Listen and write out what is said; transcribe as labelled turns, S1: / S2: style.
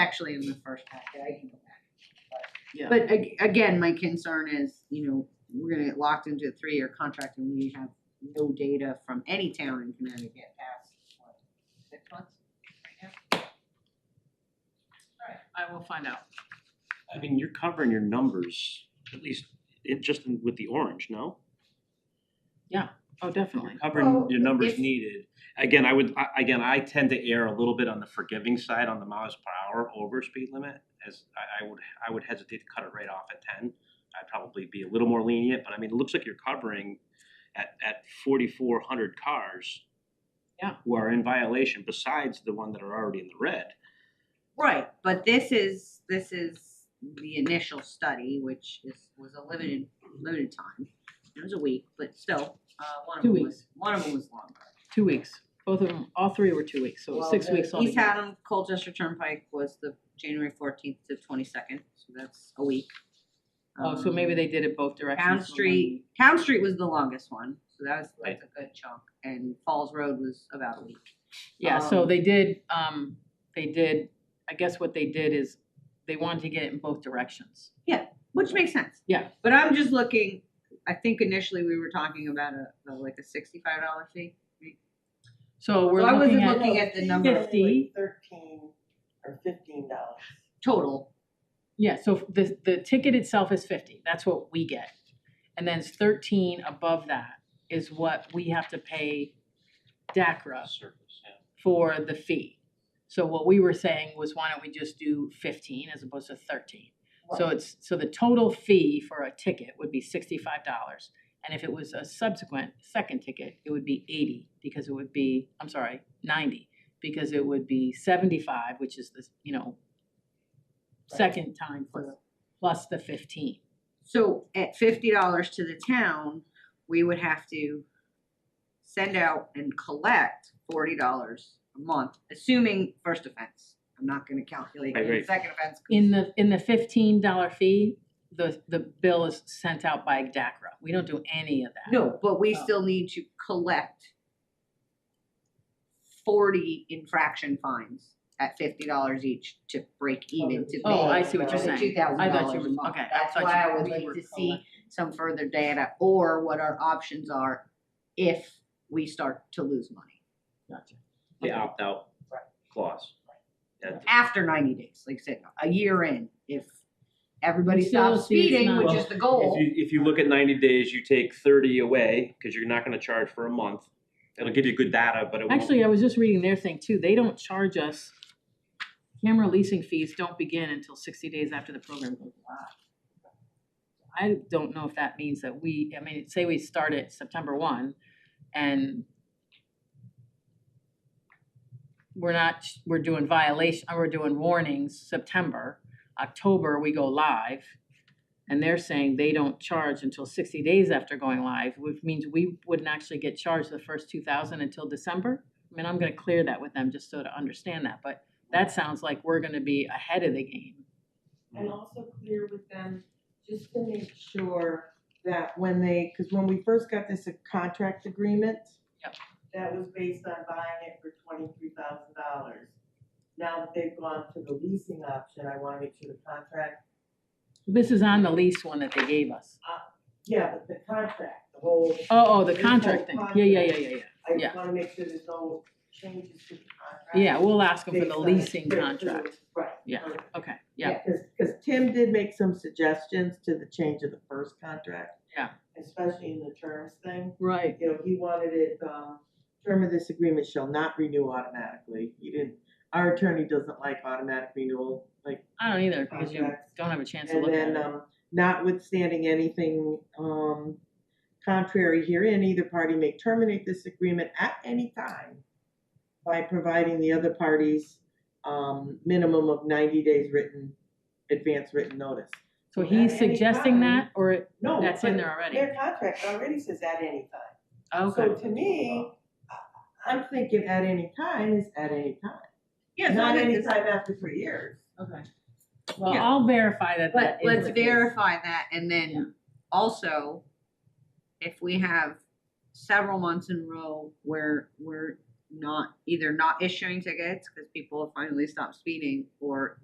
S1: actually in the first packet, I can go back.
S2: Yeah.
S1: But ag- again, my concern is, you know, we're gonna get locked into a three-year contract and we have no data from any town in Connecticut past, what, six months?
S2: I will find out.
S3: I mean, you're covering your numbers, at least it just in- with the orange, no?
S2: Oh, definitely.
S3: Covering
S1: Well,
S3: your numbers
S1: if-
S3: needed. Again, I would, I again, I tend to err a little bit on the forgiving side on the miles per hour over speed limit. As I I would, I would hesitate to cut it right off at ten. I'd probably be a little more lenient, but I mean, it looks like you're covering at at forty four hundred cars.
S2: Yeah.
S3: Who are in violation besides the one that are already in the red.
S1: Right, but this is, this is the initial study, which is, was a limited, limited time. It was a week, but still, uh, one of
S2: Two
S1: them was,
S2: weeks.
S1: one of them was longer.
S2: Two weeks. Both of them, all three were two weeks, so
S1: Well,
S2: six
S1: the
S2: weeks on
S1: East Haddam Colchester Turnpike was the January fourteenth to twenty-second, so that's a week. Um,
S2: Oh, so maybe they did it both directions.
S1: Town
S2: for one
S1: Street,
S2: week.
S1: Town Street was the longest one, so that was, that's a good chunk, and Falls Road was about a week.
S2: Yeah, so
S1: um,
S2: they did, um, they did, I guess what they did is they wanted to get it in both directions.
S1: Which makes sense.
S2: Yeah.
S1: But I'm just looking, I think initially we were talking about a, a- like a sixty-five dollar fee.
S2: So we're
S1: So I wasn't
S2: looking
S1: looking
S2: at,
S1: at the number.
S2: Fifty.
S4: Thirteen or fifteen dollars.
S1: Total,
S2: yeah, so the, the ticket itself is fifty, that's what we get. And then it's thirteen above that is what we have to pay DACRA
S3: Surface, yeah.
S2: for the fee. So what we were saying was why don't we just do fifteen as opposed to thirteen? So it's, so the total fee for a ticket would be sixty-five dollars. And if it was a subsequent second ticket, it would be eighty because it would be, I'm sorry, ninety. Because it would be seventy-five, which is this, you know, second time for, plus the fifteen.
S1: so at fifty dollars to the town, we would have to send out and collect forty dollars a month, assuming first offense. I'm not gonna calculate
S3: Right,
S1: the
S3: right.
S1: second offense. 'cause-
S2: In the, in the fifteen dollar fee, the, the bill is sent out by DACRA. We don't do any of that.
S1: No, but we
S2: Oh.
S1: still need to collect forty infraction fines at fifty dollars each to break even to pay.
S2: Oh, I see what you're
S1: for the
S2: saying.
S1: $2,000
S2: I thought you were-
S1: a month.
S2: okay, I
S1: That's
S2: thought
S1: why
S2: you-
S1: I would
S2: we
S1: like
S2: were
S1: to see some further data or what our options are if we start to lose money
S2: Gotcha.
S3: The
S2: Okay.
S3: opt-out
S4: Right.
S3: clause. Yeah.
S1: after ninety days, like I said, a year in, if everybody
S2: still
S1: stops
S2: see it's
S1: speeding,
S2: not-
S1: which is the goal.
S3: If you, if you look at ninety days, you take thirty away, cause you're not gonna charge for a month. It'll give you good data, but it won't.
S2: Actually, I was just reading their thing too, they don't charge us, camera leasing fees don't begin until sixty days after the program goes live. I don't know if that means that we, I mean, say we start at September one and we're not, we're doing violation, or we're doing warnings September, October, we go live. And they're saying they don't charge until sixty days after going live, which means we wouldn't actually get charged the first two thousand until December. I mean, I'm gonna clear that with them just so to understand that, but that sounds like we're gonna be ahead of the game.
S4: And also clear with them, just to make sure that when they, cause when we first got this uh, contract agreement.
S2: Yep.
S4: That was based on buying it for twenty-three thousand dollars. Now that they've gone to the leasing option, I wanna make sure the contract,
S2: This is on the lease one that they gave us.
S4: yeah, but the contract, the whole,
S2: Oh, oh, the
S4: This
S2: contract
S4: whole
S2: thing, yeah, yeah, yeah, yeah,
S4: I
S2: Yeah.
S4: just wanna make sure there's no changes to the contract.
S2: yeah. Yeah, we'll ask them for
S4: based
S2: the
S4: on-
S2: leasing
S4: for- for the-
S2: contract,
S4: Right.
S2: Yeah.
S4: right.
S2: okay, yeah,
S4: Cause, 'cause Tim did make some suggestions to the change of the first contract.
S2: Yeah.
S4: Especially in the terms thing,
S2: right.
S4: you know, he wanted it, um, term of this agreement shall not renew automatically, he didn't, our attorney doesn't like automatic renewal, like,
S2: I don't either, because you
S4: Contracts.
S2: don't have a chance to
S4: and
S2: look at
S4: then,
S2: it.
S4: um, notwithstanding anything, um, contrary herein, either party may terminate this agreement at any time by providing the other parties, um, minimum of ninety days written, advance written notice.
S2: So
S4: at
S2: he's
S4: any Oh,
S2: suggesting that, or it-
S4: No,
S2: that's in
S4: but
S2: there already?
S4: Their contract already says at any time.
S2: Okay,
S4: So to me, I- I'm thinking at any time is at any time.
S1: Yeah, so I
S4: Not
S1: think
S4: any
S1: this-
S4: time after three years.
S2: okay. Well,
S1: Yeah.
S2: I'll verify that
S1: But
S2: that is
S1: let's
S2: the case.
S1: verify that and
S2: Yeah.
S1: then also, if we have several months in a row where we're not, either not issuing tickets because people have finally stopped speeding or